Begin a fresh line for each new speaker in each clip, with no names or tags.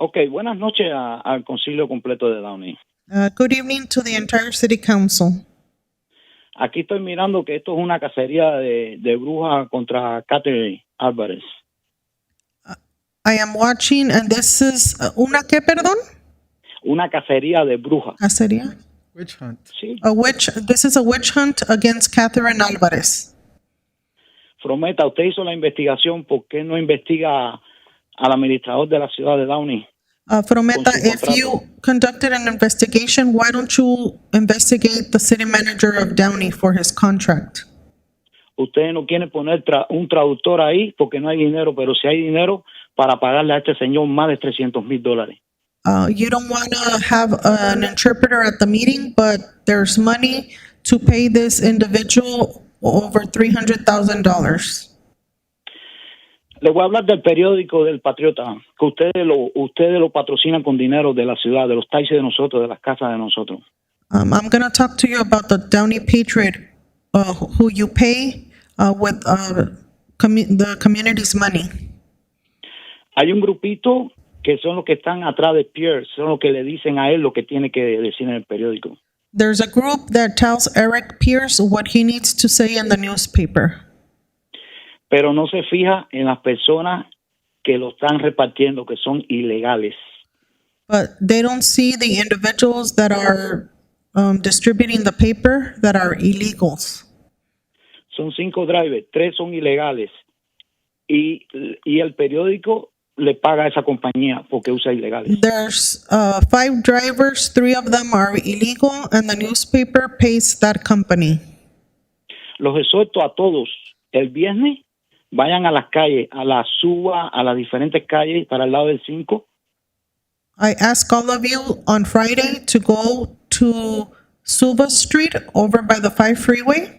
Ok, buenas noches a- al Concilio Completo de Downey.
Uh, good evening to the entire City Council.
Aquí estoy mirando que esto es una cacería de, de brujas contra Catherine Álvarez.
I am watching, and this is uh, una que perdón?
Una cacería de brujas.
Cacería.
Witch hunt.
Sí,
A witch. This is a witch hunt against Catherine Alvarez.
Frometa, usted hizo la investigación, ¿por qué no investiga al administrador de la ciudad de Downey?
Uh, Frometa,
Con su
if you conducted an investigation, why don't you investigate the city manager of Downey for his contract?
Ustedes no quieren poner tra- un traductor ahí porque no hay dinero, pero si hay dinero para pagarle a este señor más de 300 mil dólares.
Uh, you don't want to have an interpreter at the meeting, but there's money to pay this individual over three hundred thousand dollars.
Le voy a hablar del periódico del Patriota, que ustedes lo, ustedes lo patrocinan con dinero de la ciudad, de los taxis de nosotros, de las casas de nosotros.
Um, I'm gonna talk to you about the Downey Patriot, uh, who you pay, uh, with, uh, commu- the community's money.
Hay un grupito que son los que están atrás de Pierre, son los que le dicen a él lo que tiene que decir en el periódico.
There's a group that tells Eric Pierce what he needs to say in the newspaper.
Pero no se fija en las personas que lo están repartiendo, que son ilegales.
But they don't see the individuals that are, um, distributing the paper that are illegals.
Son cinco drivers, tres son ilegales. Y, y el periódico le paga a esa compañía porque usa ilegales.
There's, uh, five drivers, three of them are illegal, and the newspaper pays that company.
Los exhorto a todos el viernes vayan a las calles, a la suba, a las diferentes calles para el lado del 5
I ask all of you on Friday to go to Suva Street over by the five freeway.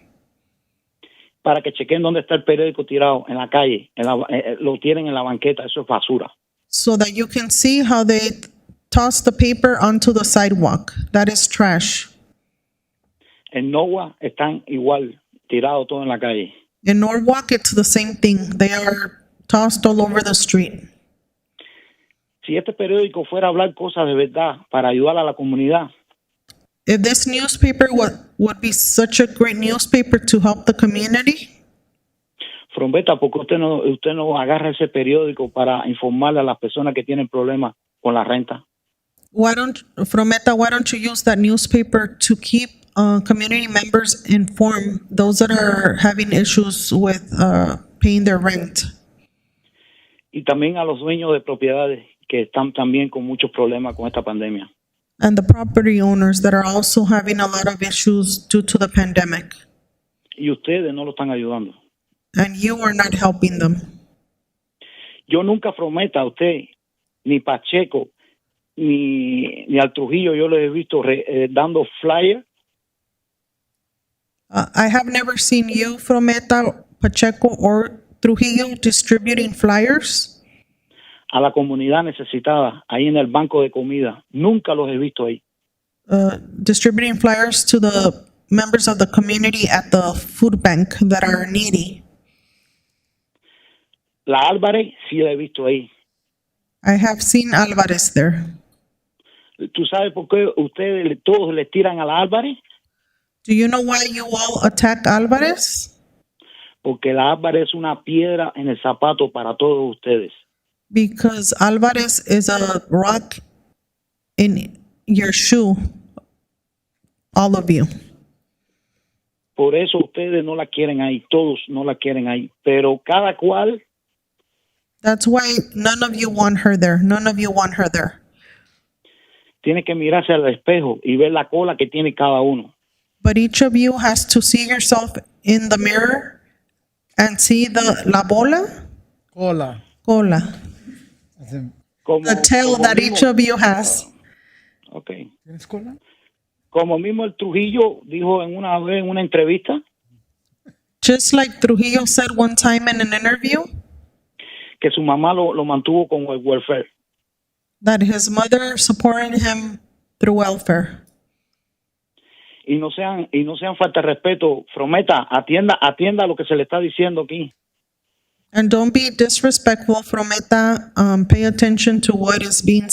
para que chequen dónde está el periódico tirado en la calle, en la- eh, eh, lo tienen en la banqueta, eso es basura.
so that you can see how they toss the paper onto the sidewalk. That is trash.
En Nova están igual, tirado todo en la calle.
In Norwalk, it's the same thing. They are tossed all over the street.
Si este periódico fuera a hablar cosas de verdad para ayudar a la comunidad,
If this newspaper would, would be such a great newspaper to help the community,
Frombeta, ¿por qué usted no, usted no agarra ese periódico para informarle a las personas que tienen problemas con la renta?
why don't, Frometa, why don't you use that newspaper to keep uh, community members informed, those that are having issues with uh, paying their rent?
Y también a los dueños de propiedades que están también con muchos problemas con esta pandemia.
And the property owners that are also having a lot of issues due to the pandemic.
Y ustedes no lo están ayudando.
and you are not helping them.
Yo nunca prometa a usted, ni Pacheco, ni, ni al Trujillo, yo les he visto re- eh, dando flyer
Uh, I have never seen you, Frometa, Pacheco, or Trujillo distributing flyers
a la comunidad necesitada ahí en el banco de comida. Nunca los he visto ahí.
uh, distributing flyers to the members of the community at the food bank that are needy.
La Álvarez sí la he visto ahí.
I have seen Alvarez there.
¿Tú sabes por qué ustedes le- todos les tiran a la Álvarez?
Do you know why you all attack Alvarez?
Porque la Álvarez es una piedra en el zapato para todos ustedes.
Because Alvarez is a rock in your shoe, all of you.
Por eso ustedes no la quieren ahí, todos no la quieren ahí. Pero cada cual
That's why none of you want her there. None of you want her there.
tiene que mirarse al espejo y ver la cola que tiene cada uno.
But each of you has to see yourself in the mirror and see the la bola,
Cola.
cola,
As in,
Como,
the tail
como
that
mismo-
each of you has.
ok.
¿Tienes cola?
Como mismo el Trujillo dijo en una vez en una entrevista
Just like Trujillo said one time in an interview
que su mamá lo, lo mantuvo con el welfare.
that his mother supported him through welfare.
Y no sean y no sean falta de respeto. Prometa, atienda atienda lo que se le está diciendo aquí.
And don't be disrespectful, Frometa. Um, pay attention to what is being